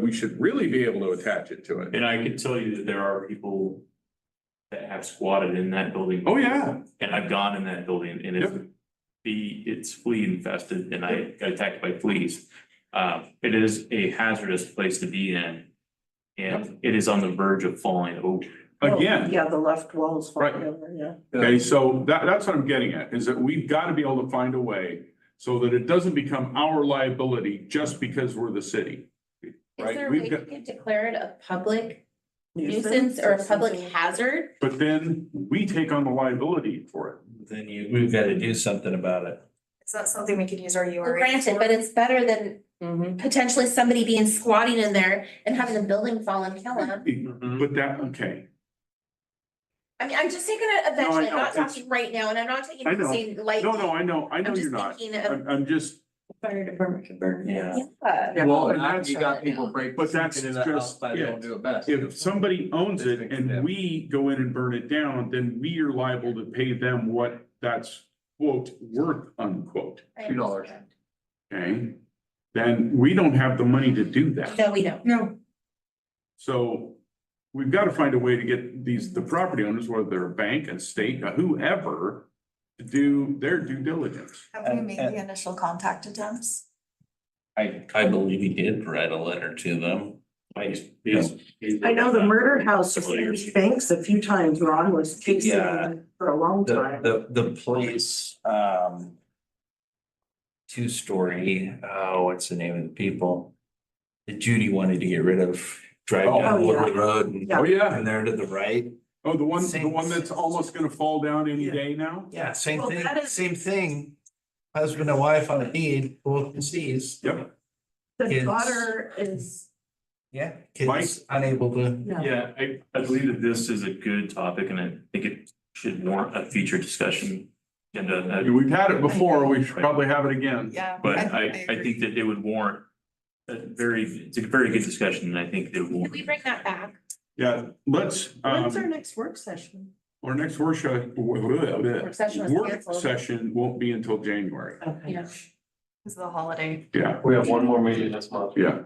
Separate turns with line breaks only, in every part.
we should really be able to attach it to it.
And I can tell you that there are people that have squatted in that building.
Oh, yeah,
And I've gone in that building and it's be, it's flea infested and I got attacked by fleas. Uh, it is a hazardous place to be in. And it is on the verge of falling over.
again,
Yeah, the left wall's falling
Oh, Right.
over, yeah.
okay, so that, that's what I'm getting at, is that we've got to be able to find a way so that it doesn't become our liability just because we're the city.
Is
Right,
there a
we've
way
got-
to declare it a public nuisance or a public hazard?
But then we take on the liability for it.
Then you, we've got to do something about it.
Is that something we could use our U
Well,
R A?
Granted, but it's better than potentially somebody being squatting in there and having the building fall and kill them.
Mm-hmm. But that, okay,
I mean, I'm just taking it
No, I
eventually,
know,
I'm not
it's-
talking right now, and I'm not taking
I
it
know.
saying lightly.
no, no, I know, I know you're
I'm just
not,
thinking of.
I'm, I'm just,
Fire department could burn.
Yeah.
Yeah.
Well,
Well,
and
now
that's-
you got people break.
But that's
into the
just
house, But they
it.
don't do it best.
if somebody owns it and we go in and burn it down, then we are liable to pay them what that's quote, worth unquote,
I
Two dollars.
understand.
okay? Then we don't have the money to do that.
No, we don't. No.
So we've got to find a way to get these, the property owners, whether they're a bank, a state, whoever, to do their due diligence.
Have we
And-
made
and-
the initial contact attempts?
I, I believe he did write a letter to them.
I know the murder house of Sandy Banks a few times, Ron was chasing
Yeah.
them for a long time.
The, the, the police, um. Two-story, oh, what's the name of the people? That Judy wanted to get rid of, drive
Oh.
down
Oh,
Woodley
yeah.
Road and,
Yeah.
Oh, yeah.
and there to the right.
Oh, the one, the
Same-
one that's almost gonna fall down any
Yeah.
day now?
Yeah, same
Well,
thing,
that is-
same thing. Husband and wife on a deed, both deceased.
Yep.
The
Kids.
daughter is,
Yeah,
Mike?
kids unable to.
yeah,
Yeah, I, I believe that this is a good topic and I think it should warrant a future discussion. And,
I
uh,
mean, We've had it before, we should probably have it again.
Yeah.
but I, I think that it would warrant a very, it's a very good discussion and I think that it will.
Can we bring that back?
Yeah, let's,
when's our
um,
next work session?
our next workshop, work
session was canceled.
session won't be until January.
Okay.
Yeah.
Is the holiday.
Yeah,
We have one more meeting this month.
yeah.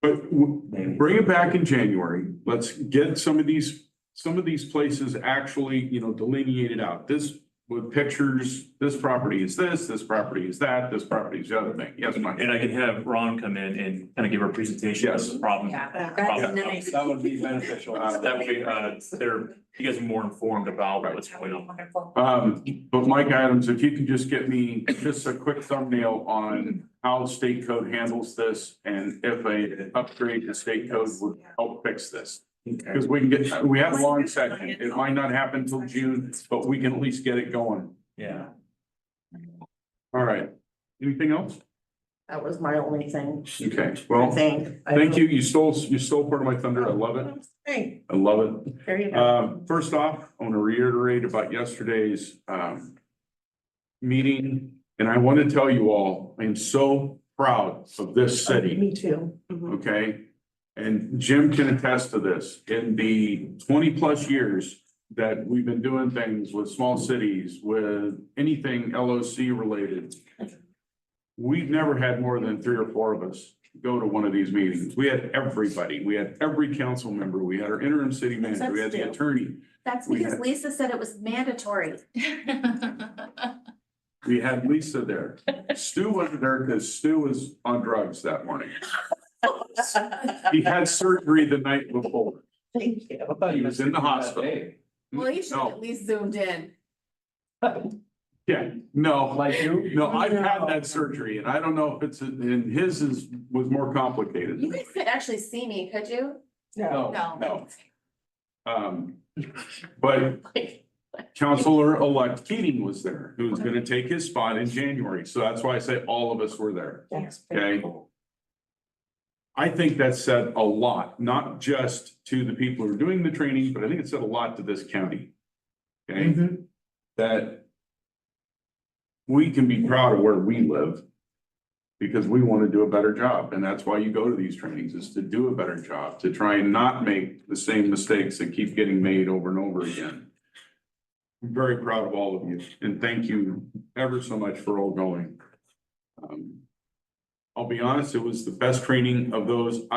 But w- bring it back in January. Let's get some of these, some of these places actually, you know, delineated out. This with pictures, this property is this, this property is that, this property is the other thing. Yes, Mike?
And I can have Ron come in and kind of give a presentation of the problem.
Oh,
That's nice.
That would be beneficial.
Uh, That way, uh, they're, you guys are more informed about what's going on.
Wonderful.
Um, but Mike Adams, if you could just get me just a quick thumbnail on how state code handles this and if a upgrade to state code would help fix this. Because we can get, we have a long session. It might not happen till June, but we can at least get it going.
Yeah.
All right. Anything else?
That was my only thing,
Okay,
I
well,
think. I
thank
don't-
you. You stole, you stole part of my thunder. I love it.
Hey,
I love it.
there you go.
Um, first off, I want to reiterate about yesterday's, um, meeting, and I want to tell you all, I am so proud of this city,
Oh, Me too. Mhm.
okay? And Jim can attest to this, in the twenty-plus years that we've been doing things with small cities, with anything LOC related, we've never had more than three or four of us go to one of these meetings. We had everybody, we had every council member, we had our interim city manager, we had the attorney,
That's
We
because
had- Mm,
Lisa said it was mandatory.
We had Lisa there. Stu wasn't there because Stu was on drugs that morning. He had surgery the night before.
Thank you.
I thought
He was in the hospital.
Hey,
Well, you should
No.
have at least zoomed in.
Yeah, no,
Like you?
no, I've had that surgery and I don't know if it's, and his is, was more
You
complicated.
guys could actually see me, could you?
No.
No.
No. Um, but Counselor-elect Keating was there, who was gonna take his spot in January. So that's why I say all of us were there.
That's
Okay.
pretty cool.
I think that said a lot, not just to the people who are doing the training, but I think it said a lot to this county. Okay,
Mhm.
that we can be proud of where we live because we want to do a better job. And that's why you go to these trainings is to do a better job, to try and not make the same mistakes that keep getting made over and over again. I'm very proud of all of you and thank you ever so much for all going. Um, I'll be honest, it was the best training of those